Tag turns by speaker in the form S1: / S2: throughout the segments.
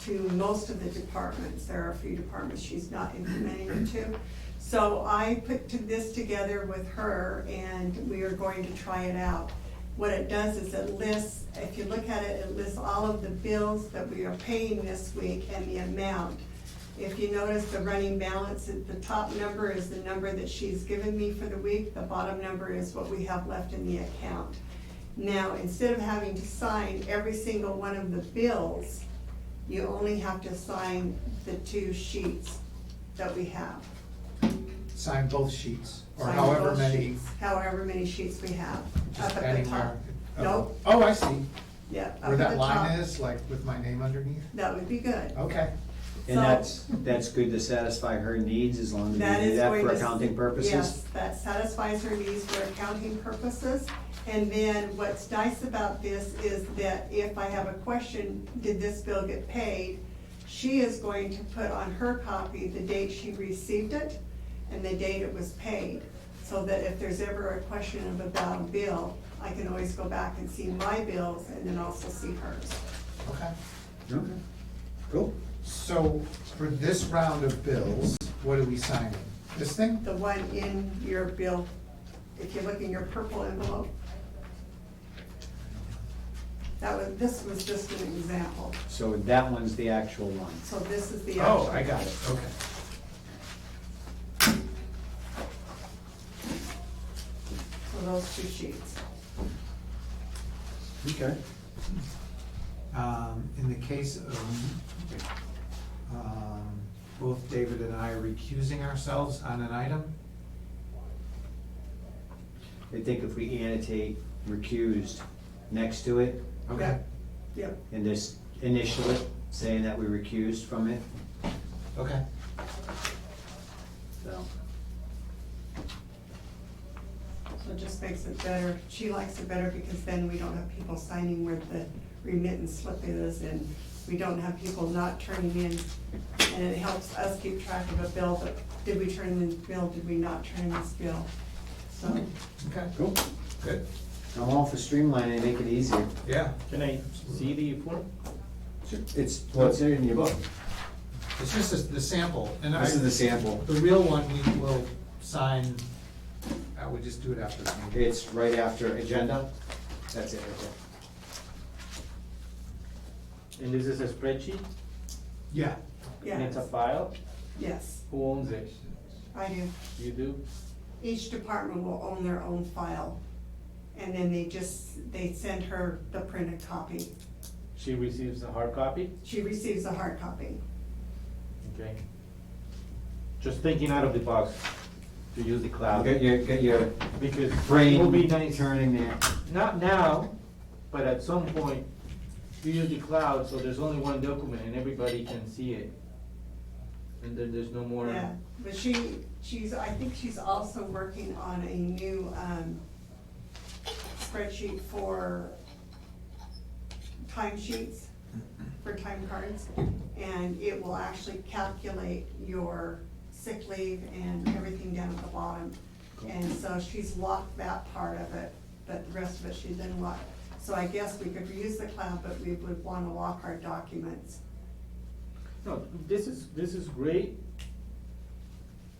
S1: to most of the departments. There are a few departments she's not implementing it to. So I put to- this together with her and we are going to try it out. What it does is it lists, if you look at it, it lists all of the bills that we are paying this week and the amount. If you notice the running balance, at the top number is the number that she's given me for the week, the bottom number is what we have left in the account. Now, instead of having to sign every single one of the bills, you only have to sign the two sheets that we have.
S2: sign both sheets, or
S1: Sign
S2: however
S1: both
S2: many.
S1: sheets, However many sheets we have,
S2: just
S1: up at
S2: adding
S1: the top.
S2: where-
S1: Nope,
S2: Oh, I see,
S1: yeah, up at the top.
S2: where that line is, like with my name underneath,
S1: That would be good.
S2: okay.
S1: So-
S3: And that's, that's good to satisfy her needs as long as
S1: That
S3: we um, do
S1: is
S3: that
S1: going
S3: for
S1: to-
S3: accounting purposes?
S1: Yes, that satisfies her needs for accounting purposes. And then what's nice about this is that if I have a question, did this bill get paid? She is going to put on her copy the date she received it and the date it was paid. So that if there's ever a question of about a bill, I can always go back and see my bills and then also see hers.
S2: Okay,
S3: Okay, cool.
S2: so for this round of bills, what are we signing? This thing?
S1: The one in your bill, if you look in your purple envelope. That was, this was just an example,
S3: So that one's the actual one.
S1: so this is the actual.
S2: Oh, I got it, okay.
S1: So those two sheets.
S3: Okay.
S2: Um, in the case of, um, both David and I recusing ourselves on an item,
S3: I think if we annotate recused next to it
S2: okay,
S1: Yep,
S3: and just initial it, saying that we recused from it,
S2: okay.
S3: so.
S1: so it just makes it better, she likes it better because then we don't have people signing where the remittance slip is and we don't have people not turning in. And it helps us keep track of a bill, but did we turn in this bill, did we not turn in this bill? So,
S2: Okay,
S3: Cool.
S2: good,
S3: I'm all for streamlining and making it easier.
S2: yeah.
S4: Can I see the form?
S3: It's, well, it's in your book.
S2: It's just the- the sample, and I.
S3: This is the sample.
S2: The real one, we will sign, I would just do it after the meeting.
S3: It's right after agenda. That's it right there.
S4: And this is a spreadsheet?
S2: Yeah,
S4: And
S1: yeah,
S4: it's a file?
S1: yes,
S4: Who owns it?
S1: I do.
S4: You do?
S1: each department will own their own file. And then they just, they send her the printed copy.
S4: She receives a hard copy?
S1: She receives a hard copy.
S4: Okay. Just thinking out of the box to use the cloud.
S3: Get your, get your
S4: Because it would be
S3: brain
S4: nice,
S3: turning there.
S4: not now, but at some point, you use the cloud, so there's only one document and everybody can see it. And then there's no more.
S1: Yeah, but she, she's, I think she's also working on a new, um, spreadsheet for timesheets, for time cards. And it will actually calculate your sick leave and everything down at the bottom. And so she's locked that part of it, but the rest of it she's unlocked. So I guess we could use the cloud, but we would wanna lock our documents.
S4: No, this is, this is great.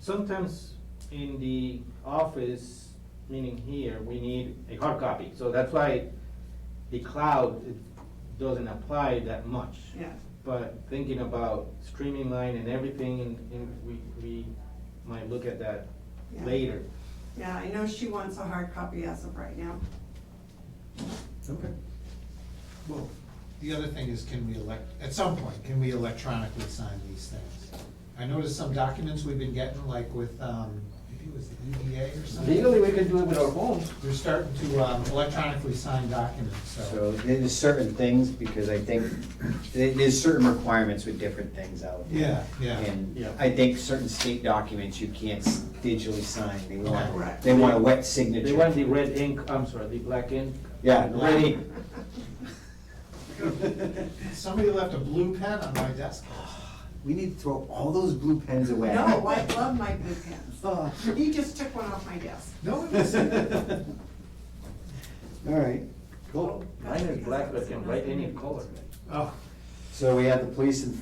S4: Sometimes in the office, meaning here, we need a hard copy, so that's why the cloud it doesn't apply that much.
S1: Yeah,
S4: But thinking about streaming line and everything, and, and we, we might look at that
S1: Yeah.
S4: later.
S1: yeah, I know she wants a hard copy as of right now.
S3: Okay.
S2: well, the other thing is, can we elect, at some point, can we electronically sign these things? I noticed some documents we've been getting, like with, um, maybe it was the EDA or something.
S4: Legally, we can do it with our phones.
S2: They're starting to um, electronically sign documents,
S3: So
S2: so.
S3: there's certain things, because I think, there- there's certain requirements with different things out there.
S2: Yeah, yeah,
S3: And
S4: Yeah.
S3: I think certain state documents you can't s- digitally sign, they want,
S1: Correct.
S3: they want a wet
S4: They want
S3: signature.
S4: the red ink, I'm sorry, the black ink.
S3: Yeah, ready.
S2: somebody left a blue pen on my desk.
S3: We need to throw all those blue pens away.
S1: No, I love my blue pens.
S3: Oh,
S1: He just took one off my desk.
S2: No, it was-
S3: All right, cool.
S4: Mine is black, but can write any color.
S2: oh.
S3: So we had the police and